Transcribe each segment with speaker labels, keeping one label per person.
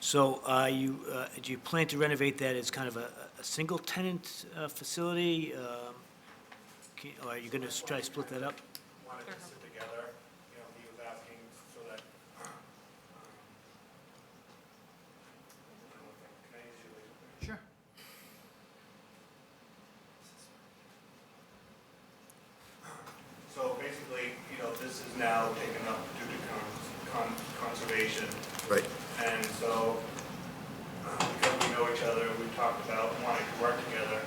Speaker 1: So uh, you, uh, do you plan to renovate that as kind of a, a single-tenant uh, facility? Um, can- Or are you going to try to split that up?
Speaker 2: wanted to sit together, you know, he was asking so that. um, Can I use your laser pointer?
Speaker 3: Sure.
Speaker 2: So basically, you know, this is now taken up due to con- con- conservation.
Speaker 4: Right.
Speaker 2: And so, uh, because we know each other, we talked about wanting to work together.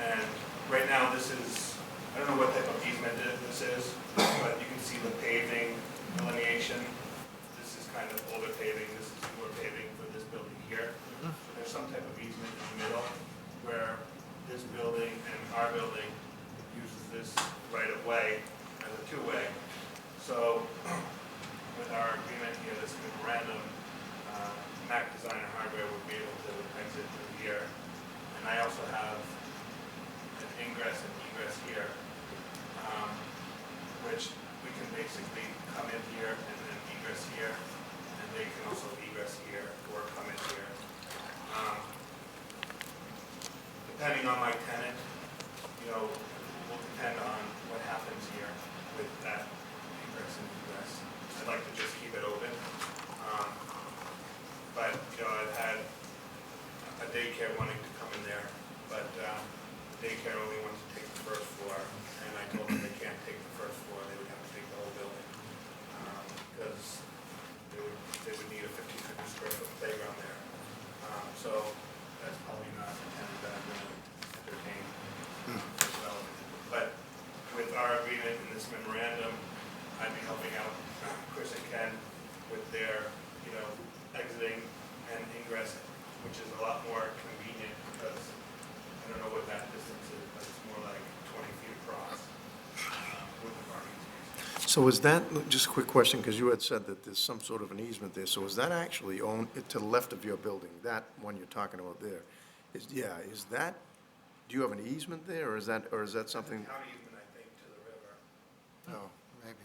Speaker 2: And right now, this is, I don't know what type of easement it- this is, but you can see the paving delineation. This is kind of older paving, this is newer paving for this building here. So there's some type of easement in the middle where this building and our building uses this right of way as a two-way. So with our agreement here, this memorandum, uh, Mac Design and Hardware would be able to exit through here. And I also have an ingress and egress here, um, which we can basically come in here and then egress here, and they can also egress here or come in here. Um, Depending on my tenant, you know, will depend on what happens here with that ingress and egress. I'd like to just keep it open. Um, But, you know, I've had a daycare wanting to come in there, but um, daycare only wants to take the first floor, and I told them they can't take the first floor, they would have to take the whole building. um, Because they would, they would need a fifteen hundred square foot playground there. Um, So that's probably not a tenant that I'm gonna entertain development. But with our agreement in this memorandum, I'd be helping out uh, Chris and Ken with their, you know, exiting and ingress, which is a lot more convenient because I don't know what that distance is, but it's more like twenty feet across um, with the parking space.
Speaker 4: So is that, just a quick question, because you had said that there's some sort of an easement there, so is that actually owned, to the left of your building, that one you're talking about there? Is, yeah, is that, do you have an easement there, or is that, or is that something?
Speaker 2: County even, I think, to the river.
Speaker 4: No.
Speaker 3: Maybe.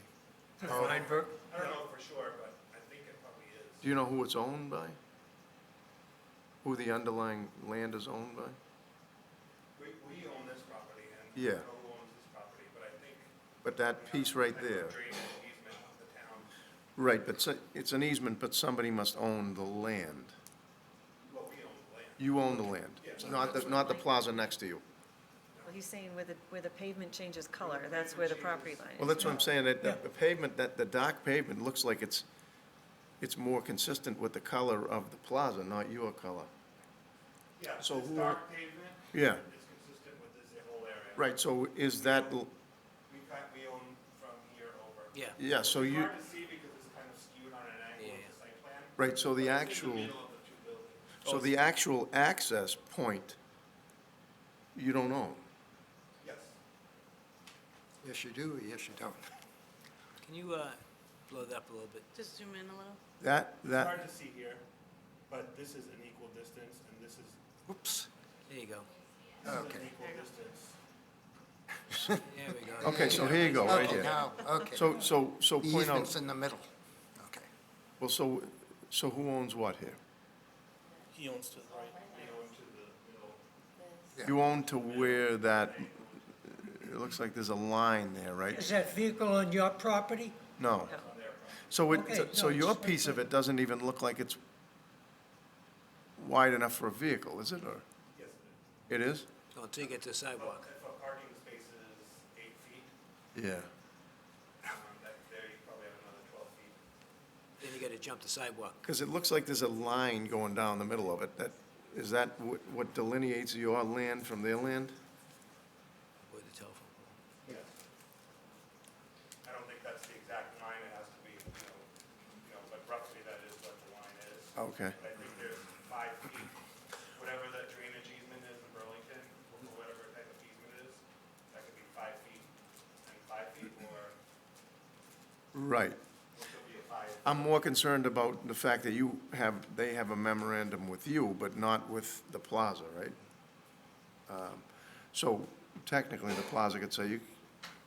Speaker 2: I don't know for sure, but I think it probably is.
Speaker 4: Do you know who it's owned by? Who the underlying land is owned by?
Speaker 2: We, we own this property and I
Speaker 4: Yeah.
Speaker 2: don't know who owns this property, but I think.
Speaker 4: But that piece right there,
Speaker 2: Drainage easement of the town.
Speaker 4: right, but so- it's an easement, but somebody must own the land.
Speaker 2: Well, we own the land.
Speaker 4: You own the land, not the, not the plaza next to you.
Speaker 5: Well, he's saying where the, where the pavement changes color, that's where the property line is.
Speaker 4: Well, that's what I'm saying, that that the pavement, that the dark pavement looks like it's, it's more consistent with the color of the plaza, not your color.
Speaker 2: Yeah,
Speaker 4: So
Speaker 2: it's
Speaker 4: who are-
Speaker 2: dark pavement
Speaker 4: Yeah,
Speaker 2: is consistent with this whole area.
Speaker 4: right, so is that, l-
Speaker 2: We kind, we own from here over.
Speaker 1: Yeah.
Speaker 4: yeah, so
Speaker 2: It's
Speaker 4: you,
Speaker 2: hard to see because it's kind of skewed on an angle with the site plan.
Speaker 4: right, so the
Speaker 2: but it's in
Speaker 4: actual,
Speaker 2: the middle of the two buildings.
Speaker 4: so the actual access point, you don't own.
Speaker 2: Yes.
Speaker 3: Yes, you do, yes, you don't.
Speaker 1: Can you uh, blow that up a little bit?
Speaker 6: Just zoom in a little.
Speaker 4: That,
Speaker 2: It's hard
Speaker 4: that,
Speaker 2: to see here, but this is an equal distance and this is,
Speaker 1: Whoops. There you go.
Speaker 2: this is an
Speaker 3: Okay.
Speaker 2: equal distance.
Speaker 1: There we go.
Speaker 4: okay, so here you go, right
Speaker 3: Okay,
Speaker 4: here.
Speaker 3: now, okay.
Speaker 4: So, so, so
Speaker 3: The
Speaker 4: point
Speaker 3: easement's
Speaker 4: out,
Speaker 3: in the middle. Okay.
Speaker 4: well, so, so who owns what here?
Speaker 2: He owns to the right, we own to the middle.
Speaker 3: Yeah.
Speaker 4: You own to where that, it looks like there's a line there, right?
Speaker 7: Is that vehicle on your property?
Speaker 4: No.
Speaker 5: No.
Speaker 4: So it,
Speaker 7: Okay,
Speaker 4: so- so
Speaker 7: no,
Speaker 4: your
Speaker 7: just-
Speaker 4: piece of it doesn't even look like it's wide enough for a vehicle, is it, or?
Speaker 2: Yes, it is.
Speaker 4: It is?
Speaker 1: Oh, Until you get to the
Speaker 2: Well,
Speaker 1: sidewalk.
Speaker 2: if a parking space is eight feet,
Speaker 4: Yeah.
Speaker 2: um, that, there you probably have another twelve feet.
Speaker 1: Then you got to jump the sidewalk.
Speaker 4: Because it looks like there's a line going down the middle of it. That, is that what what delineates your land from their land?
Speaker 1: with the telephone pole.
Speaker 2: Yes. I don't think that's the exact line, it has to be, you know, you know, but roughly that is what the line is.
Speaker 4: Oh, Okay.
Speaker 2: But I think there's five feet, whatever that drainage easement is in Burlington, or whatever type of easement is, that could be five feet and five feet, or it
Speaker 4: Right.
Speaker 2: could be a five.
Speaker 4: I'm more concerned about the fact that you have, they have a memorandum with you, but not with the plaza, right? Um, So technically, the plaza could say, you,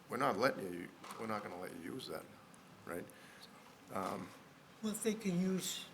Speaker 4: we're not letting you, we're not gonna let you use that, right?
Speaker 7: Well, if they can use